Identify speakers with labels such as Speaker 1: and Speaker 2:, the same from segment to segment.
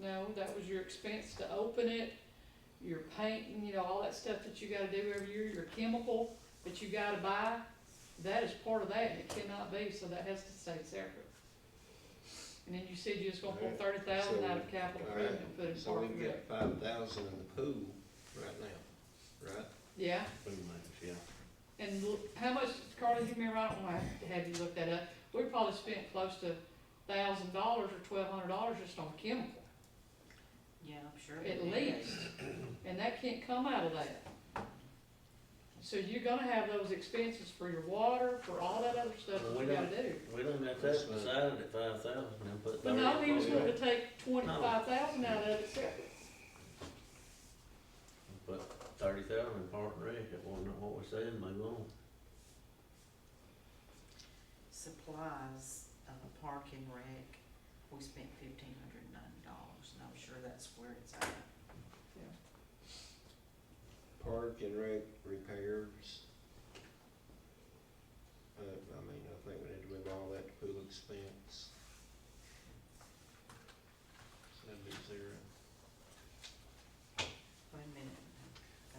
Speaker 1: No, that was your expense to open it, your paint, and you know, all that stuff that you gotta do every year, your chemical that you gotta buy. That is part of that, and it cannot be, so that has to stay separate. And then you said you was gonna pull
Speaker 2: Alright,
Speaker 1: thirty thousand out of
Speaker 2: so-
Speaker 1: capital
Speaker 2: alright,
Speaker 1: improvement, and put it in
Speaker 2: So
Speaker 1: park
Speaker 2: we
Speaker 1: and
Speaker 2: can
Speaker 1: rec.
Speaker 2: get five thousand in the pool right now, right?
Speaker 1: Yeah,
Speaker 2: Pretty much, yeah.
Speaker 1: and l- how much, Carly, you remember, I don't wanna have to have you look that up, we probably spent close to thousand dollars or twelve hundred dollars just on chemical.
Speaker 3: Yeah, I'm sure.
Speaker 1: at
Speaker 3: it is.
Speaker 1: least, and that can't come out of that. So you're gonna have those expenses for your water, for all that other stuff that you gotta do.
Speaker 4: We don't have to decide it at five thousand and put
Speaker 1: But
Speaker 4: thirty.
Speaker 1: no, he was
Speaker 4: on
Speaker 1: going
Speaker 4: it.
Speaker 1: to take twenty-five thousand out of it separate.
Speaker 4: Put thirty thousand in Park and Rec, it wasn't what we said, move on.
Speaker 3: Supplies, uh, park and rec, we spent fifteen hundred and ninety dollars, and I'm sure that's where it's at.
Speaker 2: Park and rec repairs. Uh, I mean, I think we need to move all that to pool expense. So that'd be zero.
Speaker 3: Wait a minute.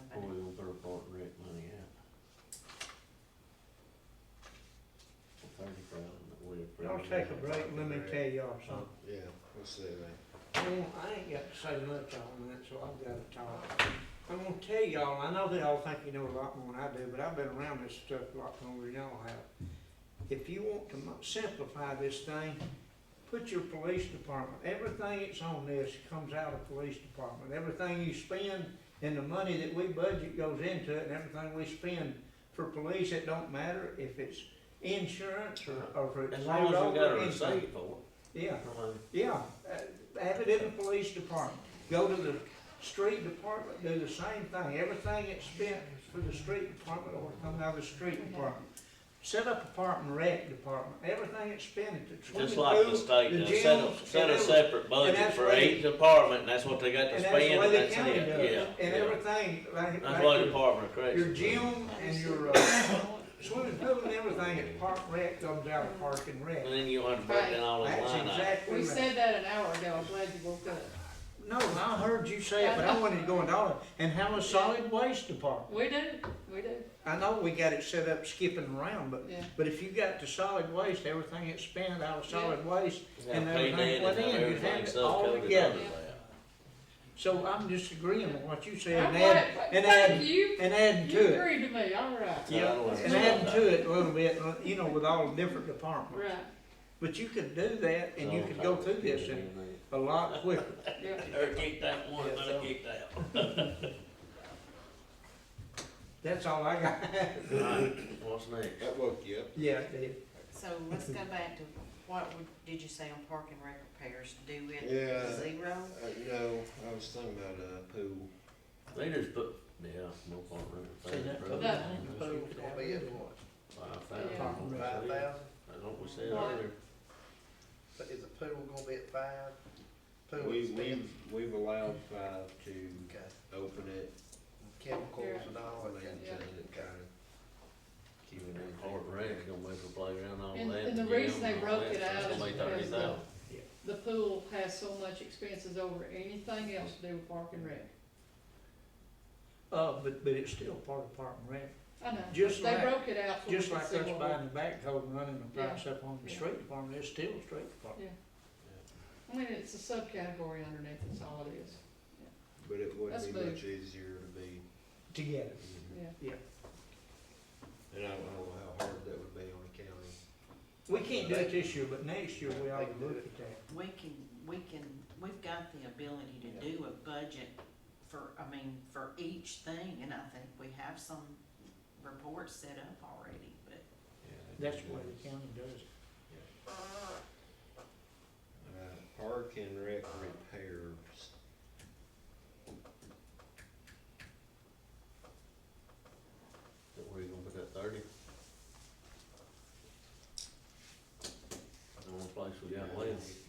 Speaker 3: Go back.
Speaker 4: Or we gonna throw Park and Rec money out. Thirty thousand that we approved.
Speaker 5: Y'all take a break, let me tell y'all something.
Speaker 2: Yeah, let's do that.
Speaker 5: Well, I ain't got to say much on that, so I've gotta talk. I'm gonna tell y'all, I know they all think you know a lot more than I do, but I've been around this stuff a lot longer than y'all have. If you want to mo- simplify this thing, put your police department, everything that's on this comes out of police department. Everything you spend and the money that we budget goes into it and everything we spend for police, it don't matter if it's insurance or, or if it's
Speaker 4: As long as
Speaker 5: payroll
Speaker 4: we got
Speaker 5: or
Speaker 4: a
Speaker 5: anything.
Speaker 4: receipt for
Speaker 5: Yeah.
Speaker 4: it, I mean,
Speaker 5: Yeah, uh, have it in the police department. Go to the street department, do the same thing. Everything that's spent for the street department will come out of the street department. Set up a park and rec department. Everything that's spent at the swimming
Speaker 4: just like the
Speaker 5: pool,
Speaker 4: state,
Speaker 5: the
Speaker 4: now, set
Speaker 5: gym,
Speaker 4: a, set a
Speaker 5: and
Speaker 4: separate budget
Speaker 5: that's
Speaker 4: for
Speaker 5: what-
Speaker 4: each department, and that's what they got to
Speaker 5: And that's the
Speaker 4: spend,
Speaker 5: way
Speaker 4: and
Speaker 5: the
Speaker 4: that's
Speaker 5: county
Speaker 4: it,
Speaker 5: does
Speaker 4: yeah.
Speaker 5: it. And
Speaker 4: yeah.
Speaker 5: everything, like,
Speaker 4: That's what the
Speaker 5: like
Speaker 4: Department of
Speaker 5: your-
Speaker 4: Corrections.
Speaker 5: your gym and your uh, swimming pool and everything at park and rec comes out of park and rec.
Speaker 4: And then you want to break down all the
Speaker 5: That's
Speaker 4: line items.
Speaker 5: exactly
Speaker 1: We
Speaker 5: right.
Speaker 1: said that an hour ago, I'm glad you woke up.
Speaker 5: No, I heard you say it, but I wanted to go into all of it. And have a solid waste department.
Speaker 1: We do, we do,
Speaker 5: I know we got it set up skipping around, but,
Speaker 1: yeah.
Speaker 5: but if you got the solid waste, everything it's spent out of solid waste.
Speaker 4: And
Speaker 5: And
Speaker 4: pay that
Speaker 5: everything went
Speaker 4: and
Speaker 5: in,
Speaker 4: have
Speaker 5: you
Speaker 4: everything
Speaker 5: had it
Speaker 4: stuff
Speaker 5: all
Speaker 4: covered under
Speaker 5: together.
Speaker 4: that.
Speaker 5: So I'm just agreeing with what you said
Speaker 1: I'm
Speaker 5: and add,
Speaker 1: glad-
Speaker 5: and
Speaker 1: Thank
Speaker 5: add-
Speaker 1: you,
Speaker 5: and adding
Speaker 1: you
Speaker 5: to it.
Speaker 1: agreed to me, all right,
Speaker 4: Yeah, I don't
Speaker 5: And adding to it a little bit, uh, you know, with all the different departments.
Speaker 1: right,
Speaker 5: But you could do that and you could go through this and a lot quicker.
Speaker 1: yeah.
Speaker 4: Or keep that one,
Speaker 5: Yeah,
Speaker 4: let
Speaker 5: so-
Speaker 4: keep that.
Speaker 5: That's all I got.
Speaker 4: Alright, What's next?
Speaker 2: That woke you up.
Speaker 5: Yeah, it did.
Speaker 3: So let's go back to, what would- did you say on park and rec repairs, do it
Speaker 2: Yeah.
Speaker 3: zero?
Speaker 2: Uh, no, I was thinking about a pool.
Speaker 4: They just put, yeah, no point running. Five thousand.
Speaker 6: Five thousand,
Speaker 4: That's what we said
Speaker 1: Right.
Speaker 4: earlier.
Speaker 6: but is the pool gonna be at five? Pool
Speaker 2: We,
Speaker 6: expense,
Speaker 2: we've, we've allowed five to
Speaker 6: okay,
Speaker 2: open it,
Speaker 6: chemicals and all that.
Speaker 2: maintain
Speaker 6: kind of
Speaker 2: it,
Speaker 6: stuff.
Speaker 2: kind of keep
Speaker 4: Even
Speaker 2: it
Speaker 4: in
Speaker 2: in
Speaker 4: hard rain, gonna wait for playground and all that.
Speaker 1: And- and the
Speaker 4: gym
Speaker 1: reason they
Speaker 4: and all
Speaker 1: broke
Speaker 4: that,
Speaker 1: it
Speaker 4: that's
Speaker 1: out
Speaker 4: gonna
Speaker 1: is
Speaker 4: be 30,000.
Speaker 1: because The pool has so much expenses over anything else to do with park and rec.
Speaker 5: Uh, but, but it's still part of Park and Rec.
Speaker 1: I know, they
Speaker 5: Just like-
Speaker 1: broke it out so we
Speaker 5: Just
Speaker 1: could
Speaker 5: like
Speaker 1: see
Speaker 5: us
Speaker 1: what we-
Speaker 5: buying the backhoe and running the price up on the street department, it's still street department.
Speaker 1: I mean, it's a subcategory underneath, that's all it is,
Speaker 2: But it would
Speaker 1: That's
Speaker 2: be
Speaker 1: big.
Speaker 2: much easier to be,
Speaker 5: Together.
Speaker 2: mhm.
Speaker 1: yeah.
Speaker 2: and I don't know how hard that would be on the county.
Speaker 5: We can't do it this year, but next year we ought to look at that.
Speaker 3: We can, we can, we've got the ability to do a budget for, I mean, for each thing, and I think we have some reports set up already, but.
Speaker 2: Yeah, that'd be
Speaker 5: That's the way
Speaker 2: good.
Speaker 5: the county does
Speaker 2: Uh, park and rec repairs.
Speaker 4: That where you gonna put that thirty? The only place we got left.
Speaker 2: You